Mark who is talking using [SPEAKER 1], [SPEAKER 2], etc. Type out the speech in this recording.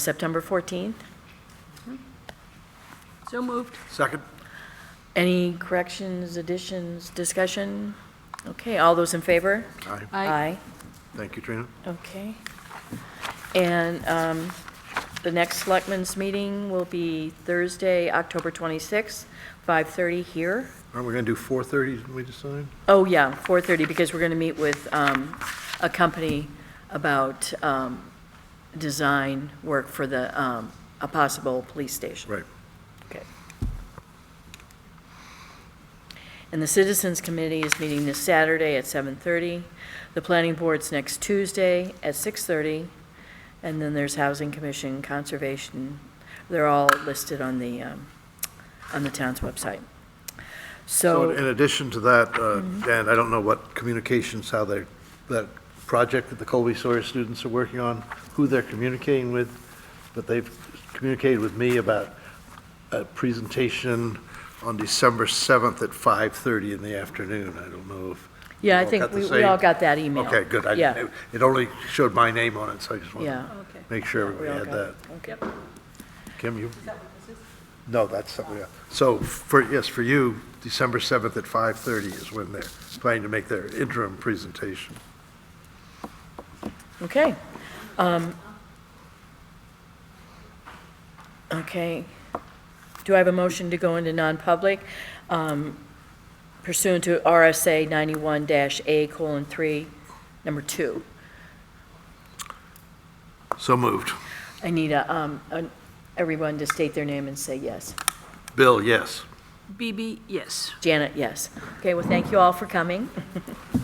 [SPEAKER 1] September 14th.
[SPEAKER 2] So moved.
[SPEAKER 3] Second?
[SPEAKER 1] Any corrections, additions, discussion? Okay, all those in favor?
[SPEAKER 3] Aye. Thank you, Trina.
[SPEAKER 1] Okay. And um, the next Selectmen's meeting will be Thursday, October 26th, 5:30 here.
[SPEAKER 3] Aren't we going to do 4:30, didn't we decide?
[SPEAKER 1] Oh, yeah, 4:30, because we're going to meet with um, a company about um, design work for the, um, a possible police station.
[SPEAKER 3] Right.
[SPEAKER 1] Okay. And the Citizens Committee is meeting this Saturday at 7:30. The Planning Board's next Tuesday at 6:30. And then there's Housing Commission, Conservation. They're all listed on the, um, on the town's website.
[SPEAKER 3] So
[SPEAKER 1] So,
[SPEAKER 3] in addition to that, uh, Dan, I don't know what communications, how they, that project that the Colby Sawyer students are working on, who they're communicating with, but they've communicated with me about a presentation on December 7th at 5:30 in the afternoon. I don't know if.
[SPEAKER 1] yeah, I
[SPEAKER 3] you all
[SPEAKER 1] think
[SPEAKER 3] got the
[SPEAKER 1] we we all
[SPEAKER 3] same-
[SPEAKER 1] got that email.
[SPEAKER 3] Okay, good. I-
[SPEAKER 1] Yeah,
[SPEAKER 3] It only showed my name on it, so I just wanted
[SPEAKER 1] yeah.
[SPEAKER 3] to
[SPEAKER 2] Okay.
[SPEAKER 3] make sure
[SPEAKER 1] We
[SPEAKER 3] everybody
[SPEAKER 1] all
[SPEAKER 3] had
[SPEAKER 1] got
[SPEAKER 3] that.
[SPEAKER 1] it.
[SPEAKER 2] Yep.
[SPEAKER 3] Kim, you? No, that's something else. So for, yes, for you, December 7th at 5:30 is when they're planning to make their interim presentation.
[SPEAKER 1] Okay. Um, Okay. Do I have a motion to go into non-public um, pursuant to RSA 91-A colon 3, number 2?
[SPEAKER 3] So moved.
[SPEAKER 1] I need a, um, an- everyone to state their name and say yes.
[SPEAKER 3] Bill, yes?
[SPEAKER 2] BB, yes.
[SPEAKER 1] Janet, yes. Okay, well, thank you all for coming.